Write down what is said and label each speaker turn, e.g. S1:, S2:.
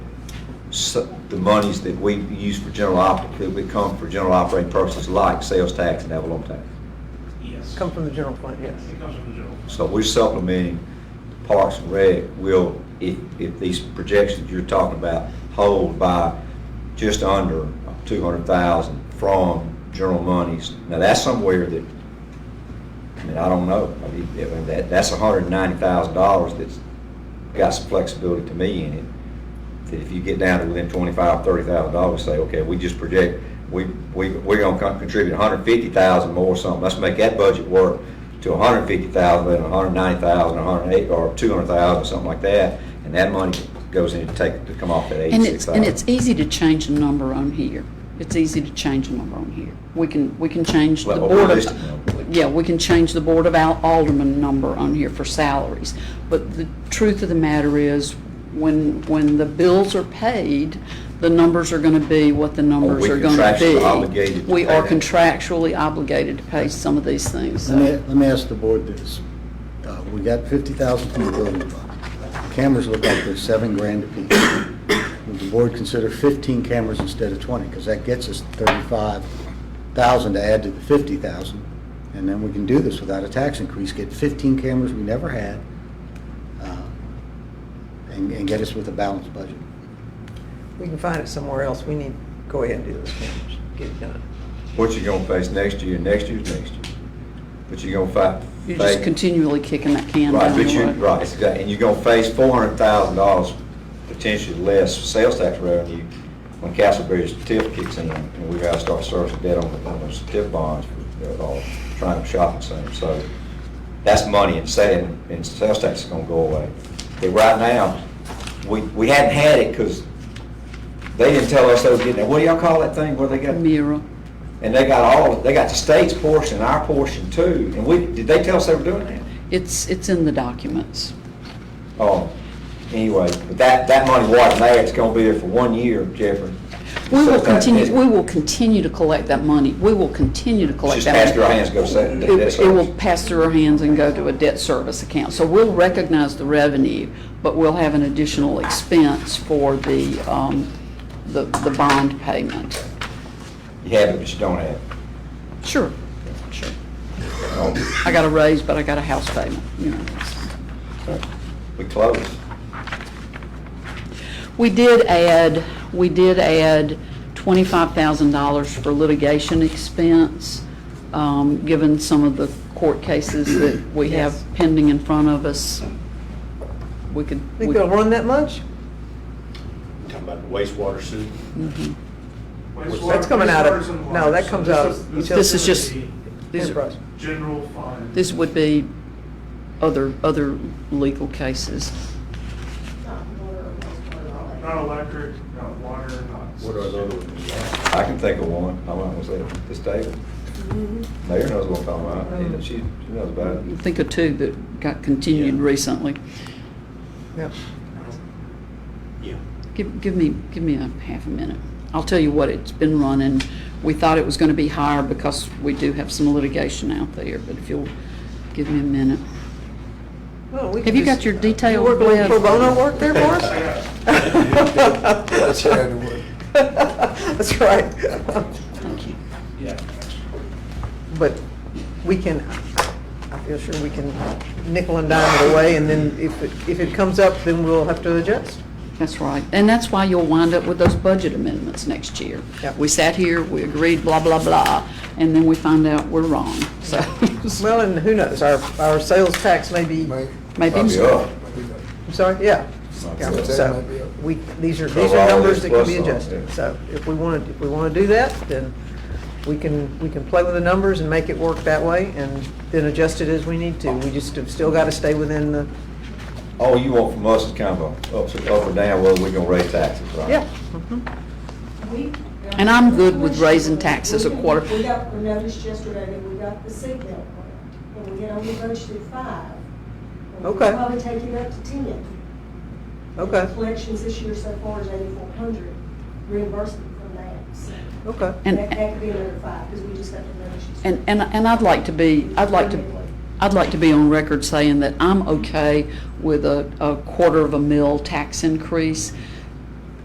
S1: s- the monies that we use for general op, that would come for general operating purposes like sales tax and avalon tax.
S2: Yes.
S3: Come from the general fund, yes.
S2: It comes from the general.
S1: So we're supplementing Parks and Rec will, if, if these projections you're talking about hold by just under two hundred thousand from general monies. Now, that's somewhere that, I mean, I don't know, I mean, I mean, that, that's hundred and ninety thousand dollars that's got some flexibility to me in it. That if you get down to within twenty-five, thirty thousand dollars, say, okay, we just project, we, we, we're gonna con- contribute hundred and fifty thousand more or something, let's make that budget work to hundred and fifty thousand, then hundred and ninety thousand, hundred and eight, or two hundred thousand, something like that, and that money goes in to take, to come off that
S4: And
S1: eighty-six
S4: it's,
S1: thousand.
S4: and it's easy to change a number on here. It's easy to change a number on here. We can, we can change the
S1: Well,
S4: board
S1: a realistic
S4: of, yeah, we can change the board of al- alderman number on here for salaries. But the truth of the matter is, when, when the bills are paid, the numbers are gonna be what the numbers
S1: we're
S4: are gonna
S1: Oh, contractually
S4: be.
S1: obligated to
S4: We
S1: pay
S4: are
S1: that.
S4: contractually obligated to pay some of these things, so.
S5: Let me, let me ask the board this. Uh, We got fifty thousand from the building fund. Cameras look like they're seven grand apiece. Would the board consider fifteen cameras instead of twenty? Because that gets us thirty-five thousand to add to the fifty thousand. And then we can do this without a tax increase, get fifteen cameras we never had, uh, and, and get us with a balanced budget.
S3: We can find it somewhere else. We need, go ahead and do this, Cameron. get it done.
S1: What you gonna face next year, next year's next year, but you're gonna fight.
S4: You're just continually kicking that can
S1: Right,
S4: down
S1: but
S4: the
S1: you,
S4: road.
S1: right, exactly, and you're gonna face four hundred thousand dollars potentially less sales tax revenue when Castleberry's TIF kicks in, and we gotta start servicing debt on the, on those TIF bonds, they're all trying to shop and same, so that's money and saving, and sales tax is gonna go away. But right now, we, we hadn't had it, cause they didn't tell us they were getting it, what do y'all call that thing, where they got?
S4: Mira,
S1: And they got all, they got the state's portion, and our portion too, and we, did they tell us they were doing that?
S4: it's, it's in the documents.
S1: Oh, anyway, but that, that money wasn't there, it's gonna be there for one year, Jeffrey.
S4: We
S1: So
S4: will
S1: that-
S4: continue, we will continue to collect that money. We will continue to
S1: It's
S4: collect
S1: just
S4: that money.
S1: past your hands, go set,
S4: It-
S1: that- that's
S4: It will pass through our hands and go to a debt service account. So we'll recognize the revenue, but we'll have an additional expense for the, um, the, the bond payment.
S1: You have it, but you don't have it.
S4: Sure, sure.
S1: Oh,
S4: I got a raise, but I got a house payment, you know.
S1: okay. We close.
S4: We did add, we did add $25,000 for litigation expense, um, given some of the court cases that we have
S3: Yes.
S4: pending in front of us. We could.
S3: Think they'll run that much?
S6: Talking about the wastewater sewer.
S3: That's coming out of-
S2: Wastewater and water.
S3: no, that comes
S2: So
S3: out
S2: this
S3: of
S2: is-
S4: This is just-
S2: the
S4: these are-
S3: Enterprise.
S2: General fund. Uh,
S4: This would be other, other legal cases.
S2: Not electric, not water, not.
S6: What are the other ones?
S1: I can think of one, I might was at this table.
S4: Mm-hmm.
S1: Mayor knows what I'm talking about,
S4: Oh.
S1: and she, she knows about it.
S4: Think of two that got continued
S6: Yeah.
S4: recently.
S3: Yep.
S6: Yeah.
S4: Give, give me, give me a half a minute. I'll tell you what it's been running. We thought it was gonna be higher because we do have some litigation out there, but if you'll give me a minute.
S3: Well, we
S4: Have
S3: could
S4: you got
S3: just-
S4: your detailed
S3: You work a little
S4: web?
S3: pro bono work there for us?
S2: That's
S3: That's right.
S4: Thank you.
S2: Yeah.
S3: But we can, I feel sure we can nickel and dime it away, and then if, it- if it comes up, then we'll have to adjust.
S4: That's right. And that's why you'll wind up with those budget amendments next year.
S3: Yep.
S4: We sat here, we agreed, blah, blah, blah, and then we find out we're wrong, so.
S3: Well, and who knows, our, our sales tax may be,
S4: Maybe.
S1: Might be up.
S3: I'm sorry, yeah. Yeah,
S1: Might be up.
S3: So, we, these are, these
S1: Cover all
S3: are numbers
S1: this
S3: that can be
S1: plus some,
S3: adjusted.
S1: yeah.
S3: So if we want to, if we want to do that, then we can, we can play with the numbers and make it work that way, and then adjust it as we need to. We just have still got to stay within the,
S1: All Oh, you want from us is kind of a up, up or down, whether we're gonna raise taxes, right?
S3: yeah.
S4: And I'm good with raising taxes a quarter.
S7: We got a notice yesterday that we got the seatbelt one, and we had only budgeted five. And we'll
S3: Okay.
S7: Probably take it up to ten.
S3: Okay,
S7: Collections this year so far is eighty-four hundred, reimbursement from that, so
S3: okay.
S4: And-
S7: that, that could be another five, because we just got the notice. yesterday.
S4: And, and, and I'd like to be, I'd like to, I'd like to be on record saying that I'm okay with a, a quarter of a mil tax increase.